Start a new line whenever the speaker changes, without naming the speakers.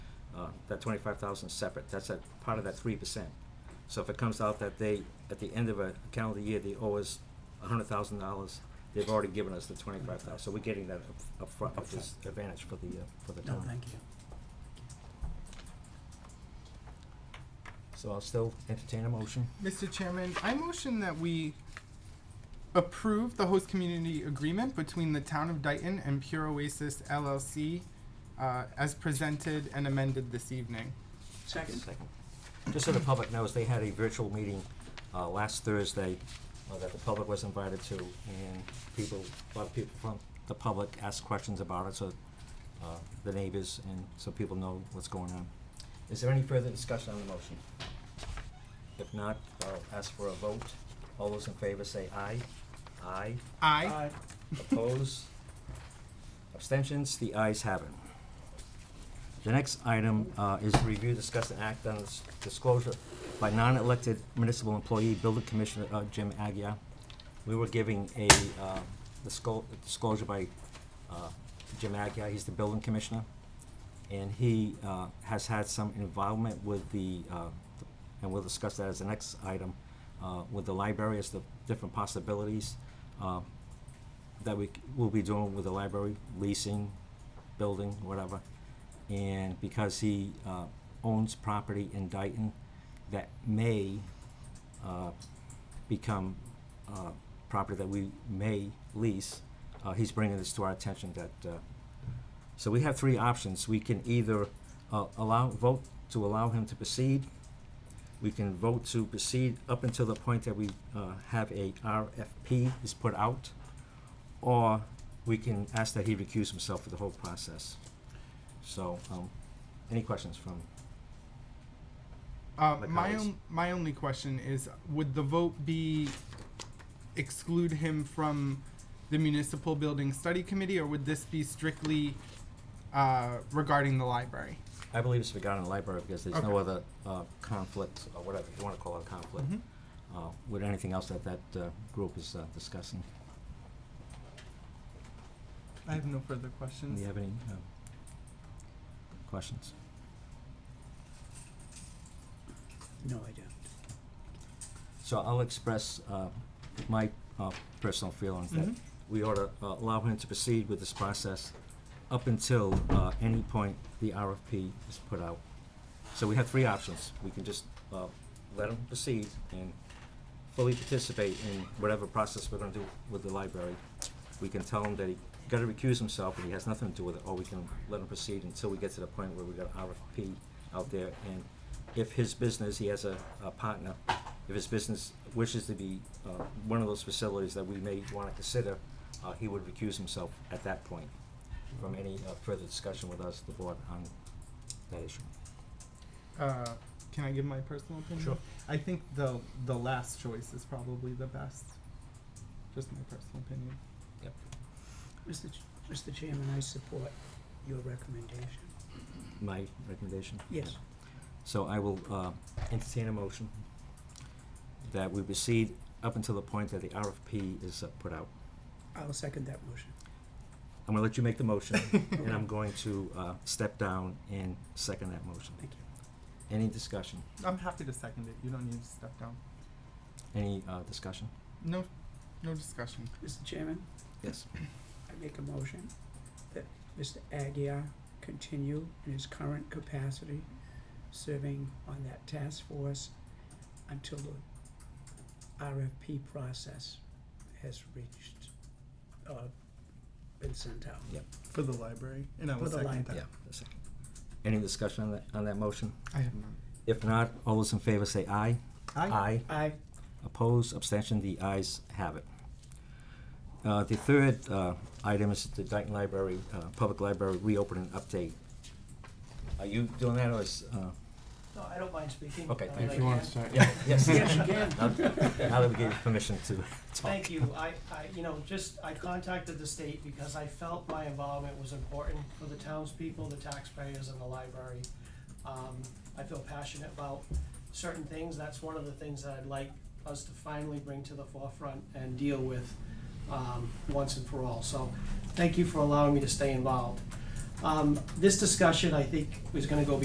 uh, that twenty-five thousand separate, that's a part of that three percent. So if it comes out that they, at the end of a calendar year, they owe us a hundred thousand dollars, they've already given us the twenty-five thousand, so we're getting that up upfront, which is advantage for the, uh, for the
No,
town.
thank you.
So I'll still entertain a motion.
Mr. Chairman, I motion that we approve the host community agreement between the town of Dayton and Pure Oasis LLC uh, as presented and amended this evening.
Second.
Just so the public knows, they had a virtual meeting uh, last Thursday uh, that the public was invited to, and people, a lot of people from the public asked questions about it, so uh, the neighbors, and so people know what's going on. Is there any further discussion on the motion? If not, I'll ask for a vote. All those in favor say aye. Aye.
Aye.
Oppose? Abstentions? The ayes have it. The next item uh, is review, discuss, and act on this disclosure by non-elected municipal employee, building commissioner uh, Jim Agia. We were giving a uh, disclo- disclosure by uh, Jim Agia, he's the building commissioner, and he uh, has had some involvement with the, uh, and we'll discuss that as the next item, uh, with the library as the different possibilities. Uh, that we will be doing with the library, leasing, building, whatever. And because he uh, owns property in Dayton that may uh, become uh, property that we may lease, uh, he's bringing this to our attention that, uh, so we have three options. We can either uh, allow, vote to allow him to proceed. We can vote to proceed up until the point that we uh, have a RFP is put out or we can ask that he recuse himself for the whole process. So, um, any questions from,
Uh,
My
my,
colleagues.
on, my only question is would the vote be exclude him from the municipal building study committee or would this be strictly uh, regarding the library?
I believe it's regarding the library because there's no
Okay.
other, uh, conflict, or whatever you wanna call it, conflict,
Mhm.
uh, with anything else that that, uh, group is, uh, discussing.
I have no further
Do
questions.
you have any, um, questions?
No, I don't.
So I'll express, uh, my, uh, personal feelings that
Mhm.
we ought to uh, allow him to proceed with this process up until uh, any point the RFP is put out. So we have three options. We can just uh, let him proceed and fully participate in whatever process we're gonna do with the library. We can tell him that he gotta recuse himself and he has nothing to do with it, or we can let him proceed until we get to the point where we got RFP out there. And if his business, he has a, a partner, if his business wishes to be uh, one of those facilities that we may want to consider, uh, he would recuse himself at that point from any uh, further discussion with us, the board, on that issue.
Uh, can I give my personal opinion?
Sure.
I think the the last choice is probably the best. Just my personal opinion.
Mr. Ch- Mr. Chairman, I support your recommendation.
My recommendation?
Yes.
So I will uh, entertain a motion that we proceed up until the point that the RFP is uh, put out.
I'll second that motion.
I'm gonna let you make the motion, and I'm going to uh, step down and second that motion.
Thank you.
Any discussion?
I'm happy to second it. You don't need to step down.
Any uh, discussion?
No, no discussion.
Mr. Chairman,
Yes.
I make a motion that Mr. Aguirre continue in his current capacity, serving on that task force until the RFP process has reached, uh, been sent out.
For the library, and I
will For the second that.
Yeah, a second. Any discussion on that, on that motion?
I have none.
If not, all those in favor say aye. Aye.
Aye.
Opposed, abstention, the ayes have it. Uh, The third uh, item is the Dayton Library, uh, Public Library reopening update. Are you doing that, or is, uh,
No, I don't mind speaking.
Okay,
uh,
thank
like
you.
that.
yeah, yes.
Yes, you can.
Now now that we gave you permission to talk.
Thank you. I, I, you know, just, I contacted the state because I felt my involvement was important for the townspeople, the taxpayers, and the library. Um, I feel passionate about certain things. That's one of the things that I'd like us to finally bring to the forefront and deal with, um, once and for all. So, thank you for allowing me to stay involved. Um, this discussion, I think, is gonna go